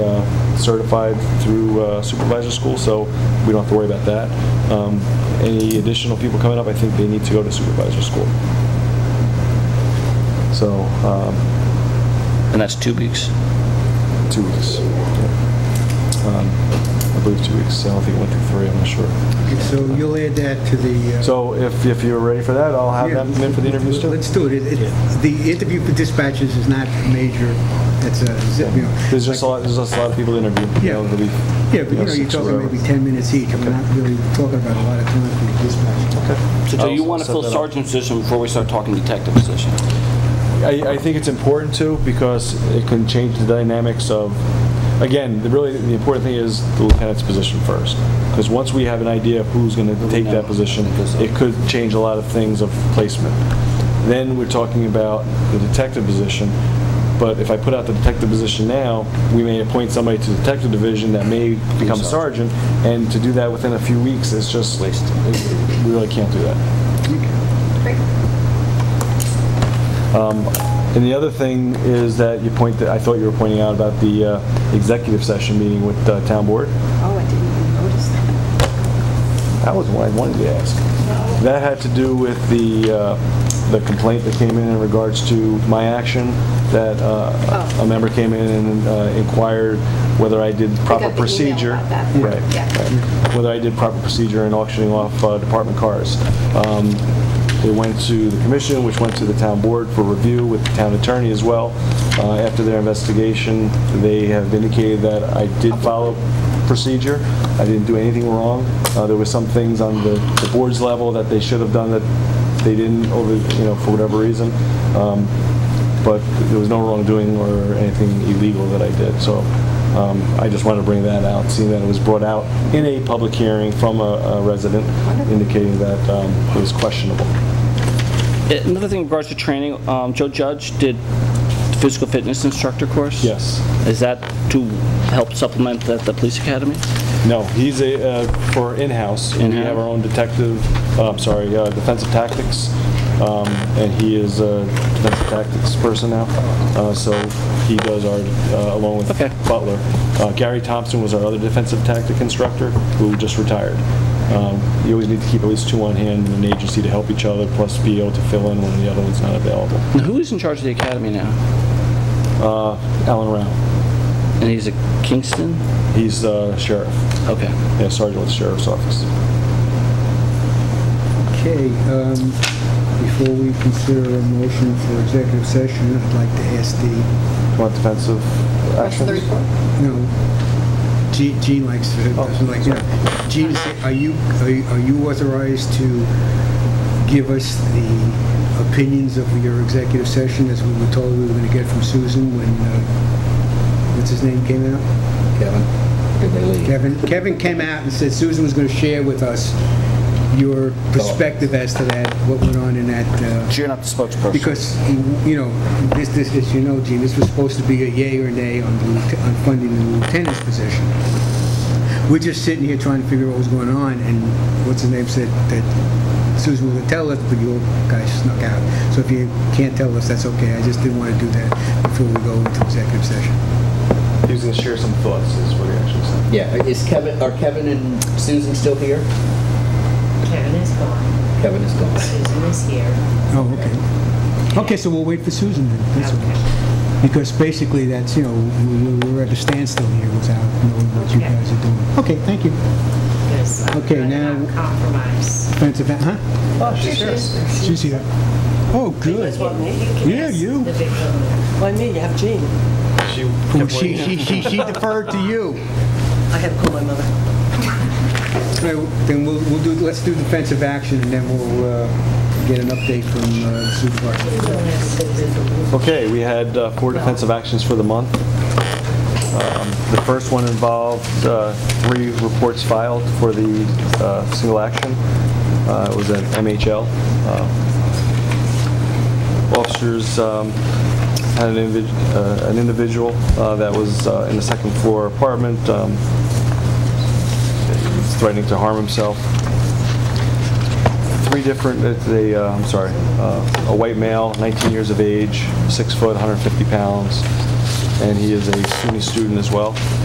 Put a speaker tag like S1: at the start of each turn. S1: uh, certified through uh, supervisor school, so we don't have to worry about that. Um, Any additional people coming up, I think they need to go to supervisor school. So, um,
S2: And that's two weeks.
S1: two weeks. Yeah. Um, I believe two weeks, I don't think it went through three, I'm not sure.
S3: So you'll add that to the... uh,
S1: So if, if you're ready for that, I'll have them in for the interviews too.
S3: Let's do it. It- it- The interview for dispatchers is not major, it's a, zip, you know...
S1: There's just a lot, there's just a lot of people to interview. you
S3: Yeah.
S1: know, there'll be,
S3: Yeah, but you know, you're
S1: six or
S3: talking
S1: whatever.
S3: maybe 10 minutes each. I'm not really talking about a lot of time for the dispatcher.
S2: So do Oh, you
S1: I'll
S2: want to
S1: set
S2: fill
S1: that up.
S2: sergeant position before we start talking detective position?
S1: I, I think it's important too, because it can change the dynamics of, again, the really, the important thing is the lieutenant's position first. Because once we have an idea of who's gonna take that position, it could change a lot of things of placement. Then we're talking about the detective position, but if I put out the detective position now, we may appoint somebody to the detective division that may become sergeant, and to do that within a few weeks is just, we really can't do that. Um, And the other thing is that you point, that I thought you were pointing out about the uh, executive session meeting with uh, town board.
S4: Oh, I didn't even notice that.
S1: That was what I wanted to ask. That had to do with the, uh, the complaint that came in in regards to my action, that uh,
S4: Oh.
S1: a member came in and uh, inquired whether I did proper
S4: got the email
S1: procedure.
S4: about that.
S1: Right.
S4: Yeah.
S1: right. Whether I did proper procedure in auctioning off uh, department cars. Um, It went to the commission, which went to the town board for review with the town attorney as well. Uh, After their investigation, they have indicated that I did follow procedure. I didn't do anything wrong. Uh, There were some things on the the board's level that they should have done that they didn't over, you know, for whatever reason. Um, But there was no wrongdoing or anything illegal that I did, so um, I just wanted to bring that out, seeing that it was brought out in a public hearing from a- a resident indicating that um, it was questionable.
S2: Another thing in regards to training, um, Joe Judge did physical fitness instructor course?
S1: Yes.
S2: Is that to help supplement the, the police academy?
S1: No, he's a, uh, for in-house. We have our own detective, uh, I'm sorry, uh, defensive tactics, um, and he is a defensive tactics person now. Uh, So he does our, uh, along with
S2: Okay.
S1: Butler. Uh, Gary Thompson was our other defensive tactic instructor, who just retired. Um, You always need to keep at least two on hand in an agency to help each other, plus be able to fill in when the other one's not available.
S2: Now, who is in charge of the academy now?
S1: Uh, Alan Rao,
S2: And he's at Kingston?
S1: he's uh, sheriff,
S2: Okay.
S1: yeah, sergeant with the sheriff's office.
S3: Okay, um, before we consider a motion for executive session, I'd like to ask the,
S1: Do you want defensive actions?
S3: you know, Gene- Gene likes to, doesn't like, you know, Gene, are you, are you- are you authorized to give us the opinions of your executive session as we were told we were going to get from Susan when, uh, what's his name came out? Kevin, Kevin came out and said Susan was going to share with us your perspective as to that, what went on in that, uh,
S5: You're not the spokesperson.
S3: because, you know, this, this, as you know, Gene, this was supposed to be a yay or nay on the lieute- on funding the lieutenant's position. We're just sitting here trying to figure out what was going on, and what's his name said that Susan was going to tell us, but you guys snuck out. So if you can't tell us, that's okay, I just didn't want to do that before we go into executive session.
S1: He was going to share some thoughts, is what he actually said.
S6: Yeah, is Kevin, are Kevin and Susan still here?
S7: Kevin is gone.
S6: Kevin is gone.
S7: Susan is here.
S3: Oh, okay. Okay, so we'll wait for Susan then. That's all.
S7: Okay.
S3: Because basically, that's, you know, we- we- we're at a standstill here without knowing what you
S7: Okay.
S3: guys are doing. Okay, thank you.
S7: Yes, I'm
S3: Okay,
S7: good
S3: now-
S7: about Compromise.
S3: Offensive, huh?
S8: Oh, she's here.
S3: She's here. Oh, good. Yeah,
S7: Yes,
S3: you.
S7: The victim.
S8: Why me? You have Jean.
S3: Oh, She she she she deferred to you.
S8: I had to call my mother.
S3: All right, Then we'll we'll do, let's do defensive action, and then we'll uh, get an update from uh, Supervisor.
S7: Don't ask Susan.
S1: Okay, we had uh, four defensive actions for the month. Um, The first one involved uh, three reports filed for the uh, single action. Uh, It was an MHL. Uh, Officers um, had an individ- uh, an individual uh, that was uh, in the second floor apartment um, threatening to harm himself three different, uh, they, uh, I'm sorry, uh, a white male, 19 years of age, six foot, 150 pounds, and he is a SUNY student as well.